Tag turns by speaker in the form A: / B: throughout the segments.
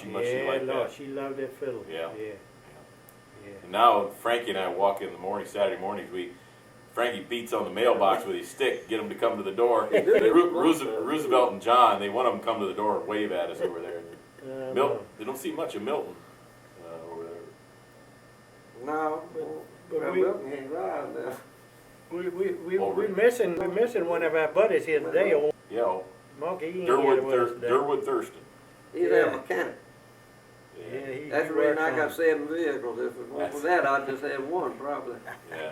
A: she much she liked
B: no,
A: that.
B: she loved that fiddle.
A: Yeah.
B: yeah,
A: And now Frankie and I walk in the morning, Saturday mornings, we, Frankie beats on the mailbox with his stick, get them to come to the door. They- Ru- Roosevelt, Roosevelt and John, they want them to come to the door and wave at us over there.
B: yeah. Uh,
A: Milton, they don't see much of Milton uh, over there.
C: No,
B: But
C: well,
B: we-
C: Milton ain't around now.
B: We we we
A: Over
B: we
A: it.
B: missing we missing one of our buddies here today. Old
A: Yeah, oh,
B: monkey, he ain't
A: Durwood,
B: here with us
A: Thur-
B: today.
A: Durwood Thurston.
C: He's
B: Yeah.
C: a mechanic.
B: Yeah, he, he
C: That's the reason
B: works
C: I
B: on
C: got
B: it.
C: seven vehicles. If it weren't for that, I'd just have one probably.
A: Yeah.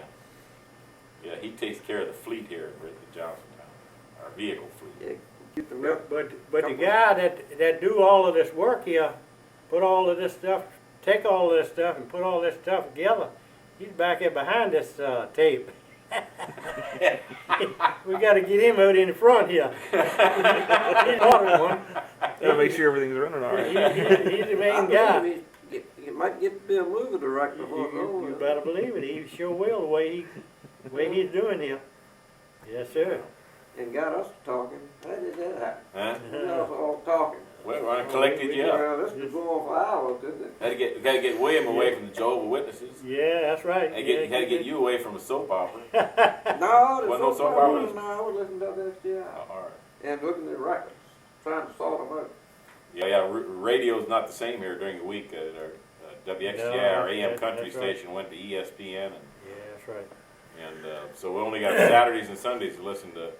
A: Yeah, he takes care of the fleet here at the Johnson Town, our vehicle fleet.
C: Yeah, Get the milk.
B: But but, but the
C: Come on.
B: guy that that do all of this work here, put all of this stuff, take all of this stuff and put all this stuff together. He's back here behind this uh, tape. we got to get him out in the front here. He's ordered one.
D: Gotta make sure everything's running all
B: He,
D: right.
B: he, he's the
C: I
B: main
C: believe
B: guy.
C: he- get- You might get Bill Mover to rock
B: You,
C: before it's
B: you- you
C: over.
B: better believe it. He sure will the way he the way he's doing here. Yes, sir.
C: And got us talking. How did that happen?
A: Huh?
C: We was all talking.
A: Well, I collected you up.
C: Well, this was going on for hours, didn't it?
A: Had to get, got to get William away from the Jehovah's Witnesses.
B: Yeah, that's right.
A: Had to get, had to get you away from a soap opera.
C: No,
A: Wasn't
C: there's
A: no
C: no
A: soap
C: problem.
A: operas.
C: No, I was listening to
A: Oh,
C: FDI
A: all right.
C: and looking at records, trying to sort them out.
A: Yeah, yeah. r- Radio's not the same here during the week. Uh, our uh, WXTI, our
B: No,
A: AM
B: that-
A: country
B: that's right.
A: station, went to E ESPN, and,
B: Yeah, that's right.
A: and uh, so we only got Saturdays and Sundays to listen to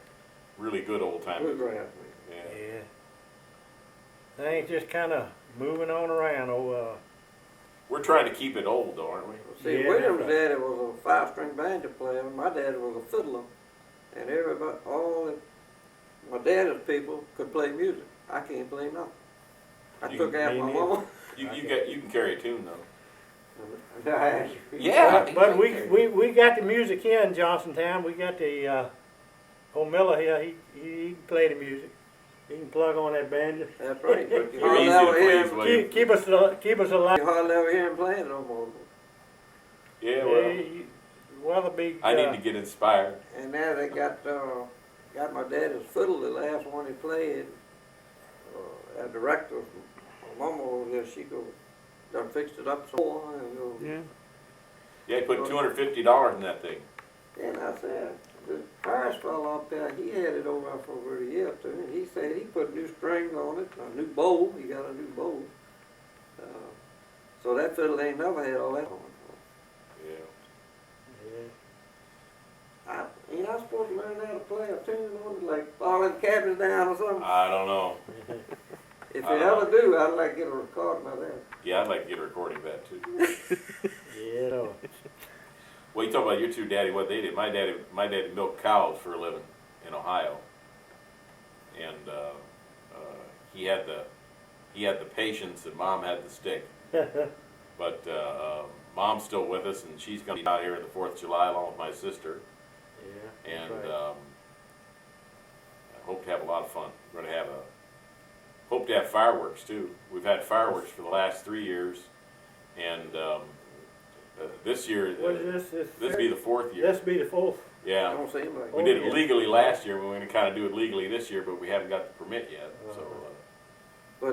A: really good old time. music.
C: Bluegrass.
A: Yeah.
B: Yeah. Things just kind of moving on around. Oh, uh,
A: We're trying to keep it old, though, aren't we?
C: See,
B: Yeah,
C: William's
B: that's
C: daddy was a five-string banjo player. My daddy was a fiddler, and everybody, all the, my daddy's people could play music. I can't play nothing. I
A: You-
C: took out
B: me
C: my
B: neither.
C: mama.
A: You you get you can carry a tune though.
C: Yeah.
B: but, but we, we we got the music here in Johnstown. We got the uh, old Miller here. He, he he can play the music. He can plug on that banjo.
C: That's right. But you
A: You're
C: hardly
A: easy
C: ever
A: to
C: hear
A: please,
C: him.
A: William.
B: Keep, keep us al- keep us alive.
C: You hardly ever hear him playing no more.
A: Yeah, well,
B: you- Weatherby.
A: I
B: uh,
A: need to get inspired.
C: And now they got uh, got my daddy's fiddle, the last one he played. Uh, our director, my mama over there, she go done fixed it up some more and uh, go.
D: Yeah.
A: Yeah, I put two hundred fifty dollars in that thing.
C: Then I said, the Paris fellow up there, he had it over for over a year or two, and he said he put new strings on it, a new bowl, he got a new bowl. Uh, so that fiddle ain't never had all that on it.
A: Yeah.
C: I, ain't I supposed to learn how to play a tune on it, like falling cabins down or something?
A: I don't know.
C: If you
A: I don't
C: ever do, I'd like to get a recording of that.
A: Yeah, I'd like to get a recording of that too.
B: yeah. no.
A: Well, you talk about your two daddy, what they did. My daddy, my daddy milked cows for a living in Ohio, and uh, uh, he had the he had the patience, and mom had the stick. but uh, uh, mom's still with us, and she's going to be out here in the Fourth of July along with my sister,
B: Yeah.
A: and
B: Right.
A: um, I hope to have a lot of fun. We're going to have a hope to have fireworks too. We've had fireworks for the last three years, and um, uh, this year. uh,
B: What is this?
A: this would be the fourth year.
B: This be the fourth.
A: Yeah.
C: Don't seem like
A: We
B: Oh,
A: did it
B: yeah.
A: legally last year, but we're gonna kinda do it legally this year, but we haven't got the permit yet, so.
B: Uh-huh.
A: uh,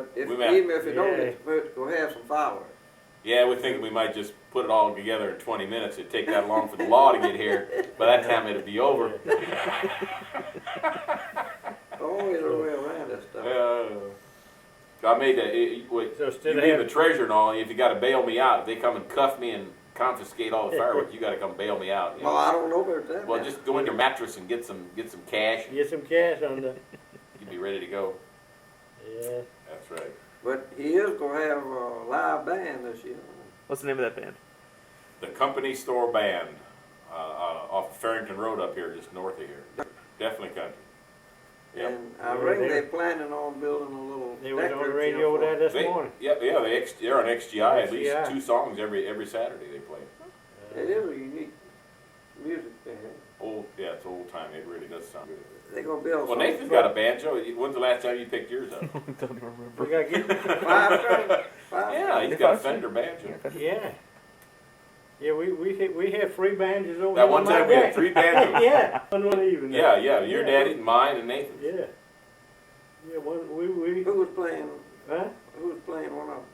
C: But if,
A: We met.
C: even if you don't
B: Yeah.
C: get the permit, go have some fireworks.
A: Yeah, we think we might just put it all together in twenty minutes, it'd take that long for the law to get here, by that time it'd be over.
C: Always a way around that stuff.
A: Uh, I made that, it, it, what-
B: So
A: you
B: instead
A: being
B: of
A: the
B: having,
A: treasurer and all, if you gotta bail me out, if they come and cuff me and confiscate all the fireworks, you gotta come bail me out. you
C: Well,
A: know.
C: I don't know about that.
A: Well,
C: now.
A: just go in your mattress and get some, get some cash, and
B: get some cash on the.
A: you'd be ready to go.
B: Yeah.
A: That's right.
C: But he is gonna have a live band this year.
D: What's the name of that band?
A: The company store band uh, uh, off Farrington Road up here, just north of here. Definitely country. Yep.
C: And I
B: Yeah,
C: reckon
B: they-
C: they're planning on building a little.
B: They was
C: deck
B: on the
C: roof
B: radio
C: here
B: there this
A: They-
B: morning.
A: Yeah, yeah. They ex, they're on XGI. At least
B: XGI.
A: two songs every every Saturday they play.
C: for-
B: Uh,
C: It is a unique music band.
A: Old, yeah, it's old time. It really does sound good.
C: They're gonna build.
A: Well, Nathan's got a banjo. When's the last time you picked yours up?
D: Don't even
B: We gotta
D: remember.
B: get,
C: Five, five.
A: yeah, he's got a Fender banjo.
B: yeah. Yeah, we, we had, we had three banjos over
A: That
B: here
A: one
B: on my
A: time we had
B: deck.
A: three banjos.
B: Yeah, one one evening.
A: Yeah, yeah. Your
B: Yeah.
A: daddy, mine, and Nathan's.
B: Yeah. Yeah, one, we, we,
C: Who was playing?
B: huh?
C: Who was playing